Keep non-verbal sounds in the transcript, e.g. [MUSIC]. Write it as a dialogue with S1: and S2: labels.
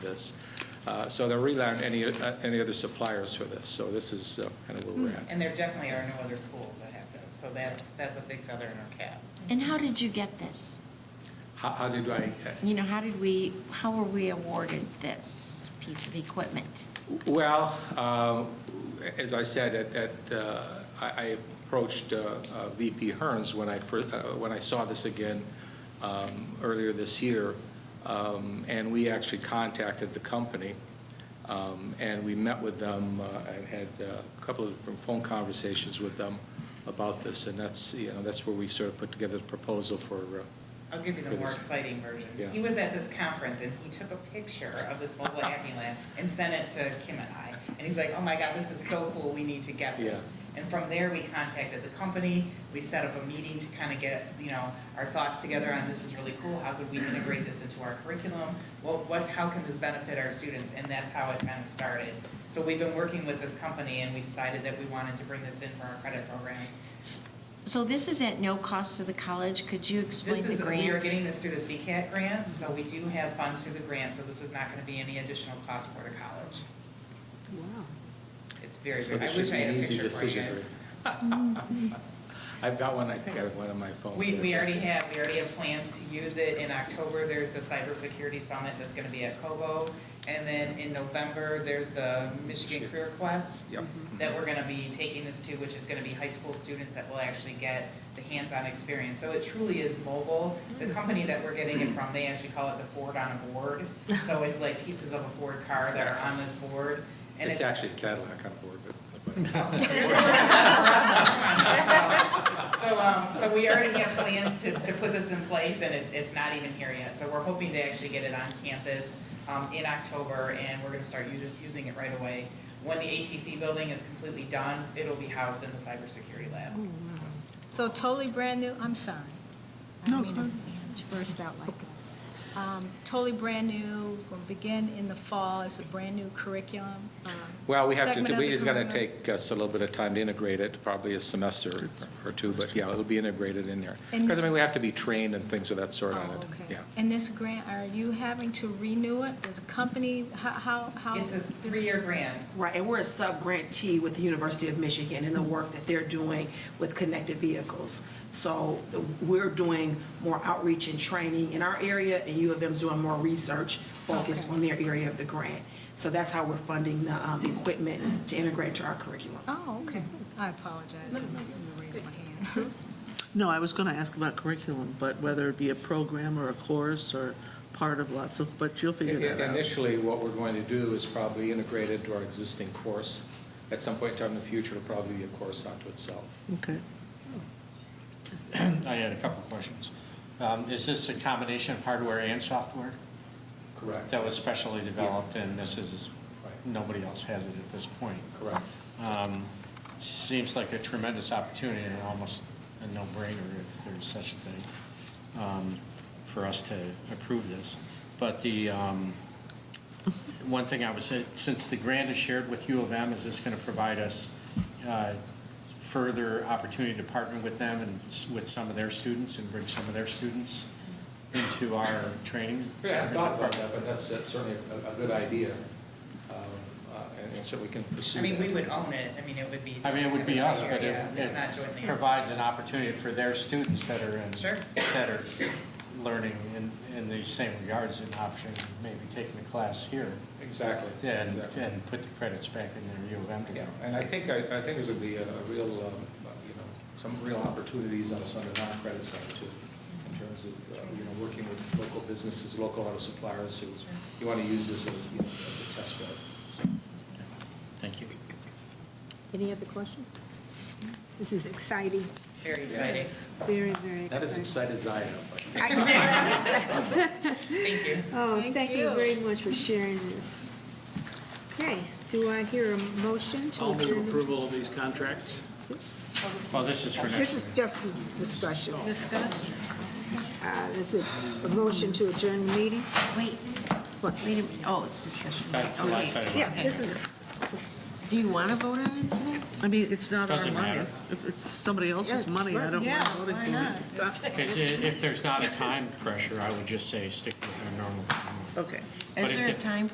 S1: this. Uh, So they're really aren't any, uh, any other suppliers for this, so this is uh, kind of where we're at.
S2: And there definitely are no other schools that have this, so that's, that's a big feather in our cap.
S3: And how did you get this?
S1: How, how did I,
S3: You know, how did we, how were we awarded this piece of equipment?
S1: well, um, as I said, at- at, uh, I I approached uh, uh, VP Hearns when I first, when I saw this again um, earlier this year, um, and we actually contacted the company, um, and we met with them, uh, and had uh, a couple of different phone conversations with them about this, and that's, you know, that's where we sort of put together the proposal for, uh,
S2: I'll give you the
S1: For
S2: more
S1: this-
S2: exciting version.
S1: Yeah.
S2: He was at this conference and he took a picture of this mobile hacking lab and sent it to Kim and I. And he's like, oh my God, this is so cool, we need to get this. And from there, we contacted the company, we set up a meeting to kind of get, you know, our thoughts together on this is really cool, how could we integrate this into our curriculum? What, what, how can this benefit our students? And that's how it kind of started. So we've been working with this company and we decided that we wanted to bring this in for our credit programs.
S3: So this is at no cost to the college, could you explain
S2: This is,
S3: the
S2: we are getting
S3: grant?
S2: this through the CCAT grant, so we do have funds through the grant, so this is not going to be any additional cost for the college. It's very,
S1: so
S2: I
S1: this
S2: wish
S1: should
S2: I
S1: be
S2: had
S1: an
S2: a
S1: easy
S2: picture for you
S1: decision.
S2: guys.
S1: Rick. [LAUGHS] I've got one, I think I have one on my phone.
S2: We, we already have, we already have plans to use it in October, there's the cybersecurity summit that's going to be at Kobo. And then in November, there's the Michigan Career Quest
S1: Yep.
S2: that we're going to be taking this to, which is going to be high school students that will actually get the hands-on experience. So it truly is mobile. The company that we're getting it from, they actually call it the Ford on a board. So it's like pieces of a Ford car that are on this board. and
S1: It's actually a Cadillac on board, but.
S2: [LAUGHS] So, um, so we already have plans to, to put this in place, and it's, it's not even here yet. So we're hoping to actually get it on campus, um, in October, and we're gonna start u- using it right away. When the ATC building is completely done, it'll be housed in the cybersecurity lab.
S4: So totally brand new, I'm sorry. No. I didn't mean to burst out like that. Um, Totally brand new, will begin in the fall, it's a brand new curriculum. um,
S1: Well, we have to,
S4: segment of
S1: do-
S4: the
S1: it's going to
S4: curriculum.
S1: take us a little bit of time to integrate it, probably a semester or two, but yeah, it'll be integrated in there.
S4: And
S1: Because, I
S4: this-
S1: mean, we have to be trained and things of that sort on it.
S4: Oh, okay.
S1: Yeah.
S4: And this grant, are you having to renew it? Does a company, how, how? how-
S2: It's a three-year grant.
S5: Right, and we're a sub-grantee with the University of Michigan and the work that they're doing with connected vehicles. So we're doing more outreach and training in our area, and U of M's doing more research focused
S4: Okay.
S5: on their area of the grant. So that's how we're funding the um, equipment to integrate to our curriculum.
S4: Oh, okay. I apologize. I'm not going to raise my hand.
S6: No, I was going to ask about curriculum, but whether it be a program or a course or part of lots of, but you'll figure that out.
S1: Initially, what we're going to do is probably integrate it into our existing course. At some point in time in the future, it'll probably be a course unto itself.
S6: Okay.
S7: I had a couple of questions. Um, Is this a combination of hardware and software
S1: Correct.
S7: that was specially developed and this is,
S1: Right.
S7: nobody else has it at this point?
S1: Correct.
S7: Um, Seems like a tremendous opportunity and almost a no-brainer if there's such a thing um, for us to approve this. But the, um, one thing I would say, since the grant is shared with U of M, is this going to provide us uh, further opportunity to partner with them and s- with some of their students and bring some of their students into our training?
S1: Yeah, I hadn't thought about that, but that's that's certainly a a good idea. Um, uh, And certainly we can pursue
S2: I mean, we
S1: that.
S2: would own it, I mean, it would be.
S7: I mean, it would be us, but it-
S2: Yeah, It's not jointly.
S7: it provides an opportunity for their students that are in,
S2: Sure.
S7: that are learning in, in these same regards, an option, maybe taking a class here,
S1: Exactly.
S7: and,
S1: exactly.
S7: and put the credits back in their U of M
S1: Yeah,
S7: degree.
S1: and I think, I I think there's going to be a a real, um, you know, some real opportunities also on the non-credit side too, in terms of, uh, you know, working with local businesses, local auto suppliers who, you want to use this as, you know, as a test bed. So,
S7: Thank you.
S8: Any other questions? [LAUGHS] This is exciting,
S2: Very exciting.
S8: very, very
S1: Not as
S8: exciting.
S1: excited as I am, but
S2: Thank you.
S8: Oh,
S4: Thank
S8: thank you
S4: you.
S8: very much for sharing this. Okay, do I hear a motion to
S9: I'll move
S8: adjourn? the-
S9: approval of these contracts.
S7: Well, this is for next.
S8: This is just the discussion. Discussion. Uh, this is a motion to adjourn the meeting?
S3: Wait, what, wait a minute, oh, it's discussion.
S7: That's the last
S3: Okay.
S7: item.
S8: Yeah, this is, this-
S3: Do you want to vote on it today?
S6: I mean, it's not our
S7: Doesn't
S6: money.
S7: matter.
S6: If it's somebody else's
S8: Yeah,
S6: money, I don't
S4: Yeah,
S6: want to vote
S4: why
S6: against
S4: not?
S7: Because if there's not a time pressure, I would just say stick with our normal. timelines.
S6: it. Okay.
S7: But
S3: Is
S7: if
S3: there a
S7: the-
S3: time